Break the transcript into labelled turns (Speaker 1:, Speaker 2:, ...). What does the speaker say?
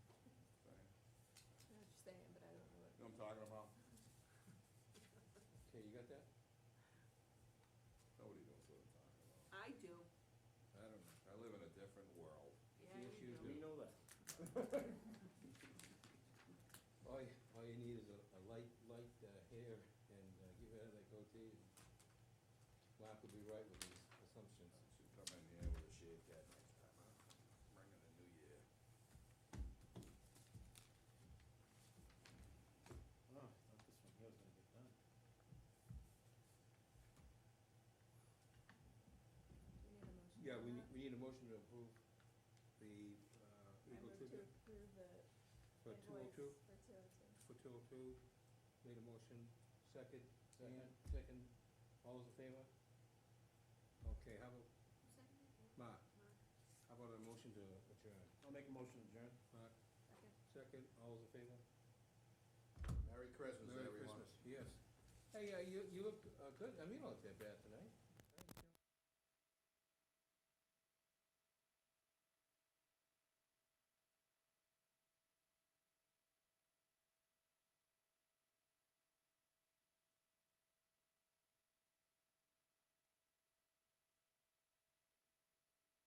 Speaker 1: talking about?
Speaker 2: Okay, you got that?
Speaker 1: Nobody knows what I'm talking about.
Speaker 3: I do.
Speaker 1: I don't, I live in a different world.
Speaker 3: Yeah,
Speaker 2: The
Speaker 3: you
Speaker 2: issue is
Speaker 3: do.
Speaker 2: we
Speaker 4: know that.
Speaker 2: All, you- all you need is a, a light, light uh, hair and uh, get rid of that goatee. and Mark will be right with his assumptions.
Speaker 1: Should come in here with a shaved head next time, huh? Bring in the new year.
Speaker 4: No, Oh, not this one, here's gonna get done.
Speaker 3: We need a motion
Speaker 2: Yeah,
Speaker 3: for
Speaker 2: we,
Speaker 3: that.
Speaker 2: we need a motion to approve the, uh,
Speaker 5: I
Speaker 2: legal
Speaker 5: move to
Speaker 2: tribute
Speaker 5: approve the
Speaker 2: for two oh
Speaker 5: invoice
Speaker 2: two,
Speaker 5: for two oh two.
Speaker 2: for two oh two. Made a motion, second,
Speaker 4: Second.
Speaker 2: Dan, second, all those in favor? Okay, how about,
Speaker 3: Who seconded it?
Speaker 2: Mark,
Speaker 3: Mark,
Speaker 2: how about a motion to adjourn?
Speaker 4: I'll make a motion to adjourn.
Speaker 2: Mark,
Speaker 3: second.
Speaker 2: second, all those in favor?
Speaker 1: Merry Christmas,
Speaker 2: Merry
Speaker 1: everyone.
Speaker 2: Christmas, yes. Hey, uh, you, you look, uh, good, I mean, you don't look that bad tonight.